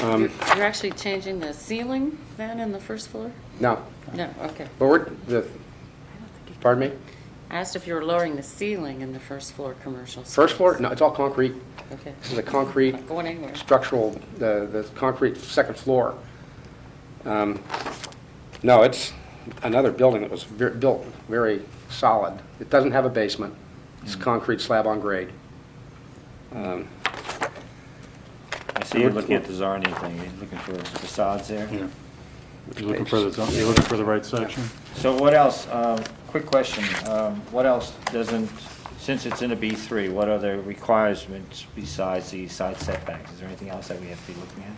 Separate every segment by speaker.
Speaker 1: You're you're actually changing the ceiling then in the first floor?
Speaker 2: No,
Speaker 1: No, okay.
Speaker 2: but we're, the, pardon me?
Speaker 1: I asked if you were lowering the ceiling in the first floor commercial space.
Speaker 2: First floor? No, it's all concrete.
Speaker 1: Okay.
Speaker 2: This is a concrete
Speaker 1: Not going anywhere.
Speaker 2: structural, the, the concrete second floor. Um, No, it's another building that was ver- built very solid. It doesn't have a basement. It's concrete slab on grade. Um,
Speaker 3: I see you're looking at the Zarni thing, you're looking for facades there.
Speaker 4: Yeah. You're looking for the, you're looking for the right section?
Speaker 3: So what else, um, quick question, um, what else doesn't, since it's in a B3, what other requirements besides the side setbacks? Is there anything else that we have to be looking at?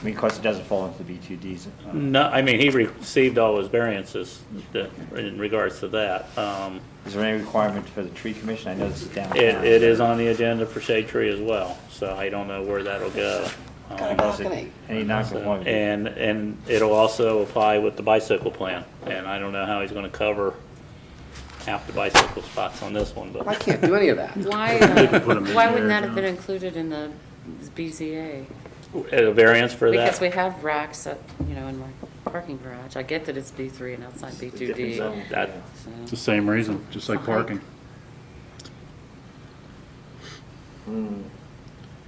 Speaker 3: I mean, of course, it doesn't fall into the B2Ds. uh,
Speaker 5: No, I mean, he received all his variances that- in regards to that. Um,
Speaker 3: Is there any requirement for the tree commission? I know this is downtown.
Speaker 5: It, it is on the agenda for shade tree as well, so I don't know where that'll go.
Speaker 3: And
Speaker 5: Um,
Speaker 3: does it- Any non-conformity?
Speaker 5: And, and it'll also apply with the bicycle plan, and I don't know how he's gonna cover half the bicycle spots on this one,
Speaker 2: I
Speaker 5: but
Speaker 2: can't do any of that.
Speaker 1: Why,
Speaker 4: They
Speaker 1: uh,
Speaker 4: could put 'em in
Speaker 1: why wouldn't
Speaker 4: there,
Speaker 1: that have been
Speaker 4: yeah.
Speaker 1: included in the BZA?
Speaker 5: a variance for that.
Speaker 1: Because we have racks, at, you know, in my parking garage. I get that it's B3 and outside
Speaker 3: Different
Speaker 1: B2D.
Speaker 3: zone,
Speaker 5: That-
Speaker 3: yeah.
Speaker 1: so-
Speaker 4: It's the same reason, just like parking.
Speaker 3: Hmm.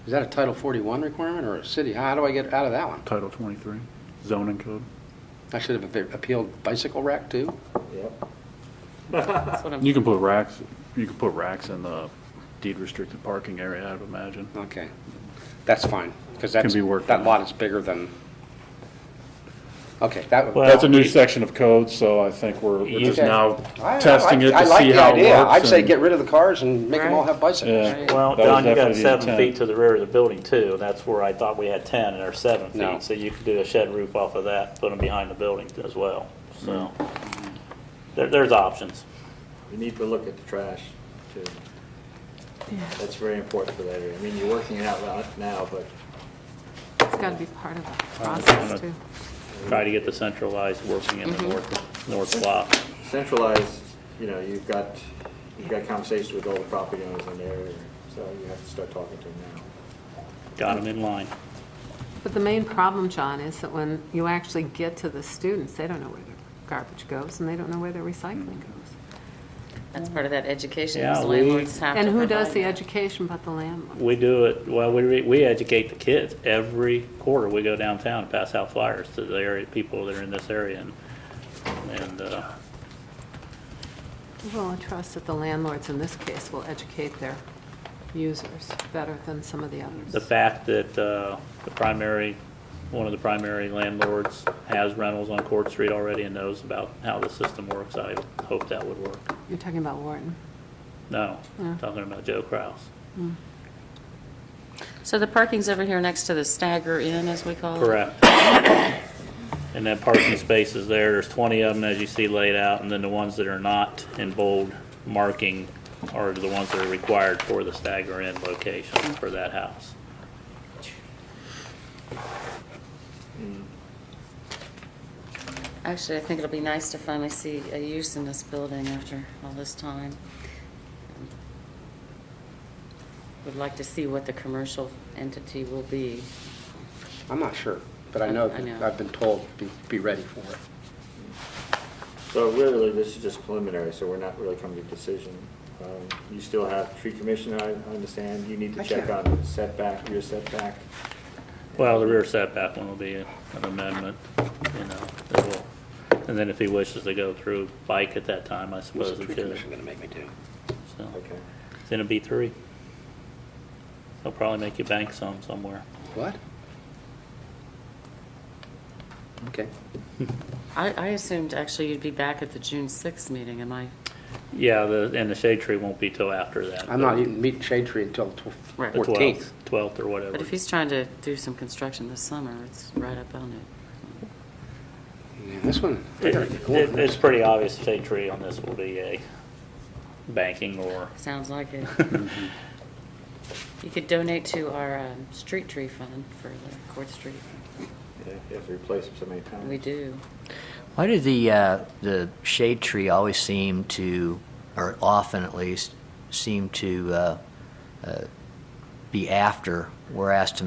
Speaker 2: Is that a Title 41 requirement or a city? How do I get out of that one?
Speaker 4: Title 23, zoning code.
Speaker 2: I should have appealed bicycle rack too?
Speaker 3: Yep.
Speaker 1: That's what I'm,
Speaker 4: You can put racks, you can put racks in the deed restricted parking area, I'd imagine.
Speaker 2: Okay, that's fine, because that's,
Speaker 4: be worked
Speaker 2: that
Speaker 4: on.
Speaker 2: lot is bigger than, okay, that,
Speaker 5: Well,
Speaker 4: That's a new
Speaker 5: we-
Speaker 4: section of code, so I think we're we're just
Speaker 2: Okay.
Speaker 4: now
Speaker 2: I- I
Speaker 4: testing it
Speaker 2: like-
Speaker 4: to see
Speaker 2: I
Speaker 4: how
Speaker 2: like
Speaker 4: it
Speaker 2: the idea, I'd
Speaker 4: works.
Speaker 2: say
Speaker 4: and-
Speaker 2: get rid of the cars and make them all
Speaker 1: Right.
Speaker 2: have bicycles.
Speaker 4: Yeah.
Speaker 5: Well,
Speaker 4: That was
Speaker 5: Don, you got
Speaker 4: definitely the
Speaker 5: seven
Speaker 4: intent.
Speaker 5: feet to the rear of the building too, and that's where I thought we had 10, and there's seven
Speaker 2: No.
Speaker 5: feet. So you could do a shed roof off of that, put them behind the building as well, so. There, there's options.
Speaker 3: We need to look at the trash, too. That's very important for that area. I mean, you're working it out loud now, but
Speaker 6: It's got to be part of the process, too.
Speaker 5: Try to get the centralized working in the north, north block.
Speaker 3: centralized, you know, you've got, you've got conversations with all the property owners in the area, so you have to start talking to them now.
Speaker 5: Got them in line.
Speaker 6: But the main problem, John, is that when you actually get to the students, they don't know where their garbage goes, and they don't know where their recycling goes.
Speaker 1: that's part of that education,
Speaker 5: Yeah,
Speaker 1: those
Speaker 5: we-
Speaker 1: landlords have to
Speaker 6: And who does
Speaker 1: provide
Speaker 6: the
Speaker 1: that.
Speaker 6: education but the landlord?
Speaker 5: We do it, well, we, re- we educate the kids. Every quarter, we go downtown and pass out flyers to the area, people that are in this area. and- And, uh,
Speaker 6: Well, I trust that the landlords in this case will educate their users better than some of the
Speaker 5: the
Speaker 6: others.
Speaker 5: fact that uh, the primary, one of the primary landlords has rentals on Court Street already and knows about how the system works, I hope that would work.
Speaker 6: You're talking about Wharton.
Speaker 5: No, talking about Joe Kraus.
Speaker 6: Hmm.
Speaker 1: So the parking's over here next to the Stagger Inn, as we call it?
Speaker 5: Correct. And that parking space is there, there's 20 of them, as you see laid out, and then the ones that are not in bold marking are the ones that are required for the stagger in location for that house.
Speaker 1: Actually, I think it'll be nice to finally see a use in this building after all this time. Would like to see what the commercial entity will be.
Speaker 2: I'm not sure, but I know,
Speaker 1: I know.
Speaker 2: I've been told, be, be ready for it.
Speaker 3: So really, this is just preliminary, so we're not really coming to a decision. Um, You still have tree commission, I I understand, you need to
Speaker 2: I
Speaker 3: check
Speaker 2: can't-
Speaker 3: on setback, rear setback.
Speaker 5: Well, the rear setback one will be an amendment, you know, that will, and then if he wishes to go through bike at that time, I
Speaker 2: What's
Speaker 5: suppose
Speaker 2: the
Speaker 5: he
Speaker 2: tree
Speaker 5: could.
Speaker 2: commission gonna make me do?
Speaker 5: So,
Speaker 3: Okay.
Speaker 5: It's in a B three. They'll probably make you bank some somewhere.
Speaker 2: What? Okay,
Speaker 1: I, I assumed actually you'd be back at the June 6th meeting, am I?
Speaker 5: Yeah, the, and the shade tree won't be till after that.
Speaker 2: I'm not even meeting Shade Tree until the
Speaker 1: Right.
Speaker 2: tw-
Speaker 1: The
Speaker 5: The
Speaker 2: 14th.
Speaker 5: twelfth, twelfth or whatever.
Speaker 1: But if he's trying to do some construction this summer, it's right up on it.
Speaker 2: Yeah, This one, I
Speaker 5: It-
Speaker 2: gotta get going on
Speaker 5: it- It's
Speaker 2: this.
Speaker 5: pretty obvious the shade tree on this will be a banking or,
Speaker 1: Sounds like it. You could donate to our um, street tree fund for the Court Street.
Speaker 3: Yeah, You have to replace them so many times.
Speaker 1: We do.
Speaker 7: Why did the, uh, the shade tree always seem to, or often at least, seem to, uh, uh, be after, whereas to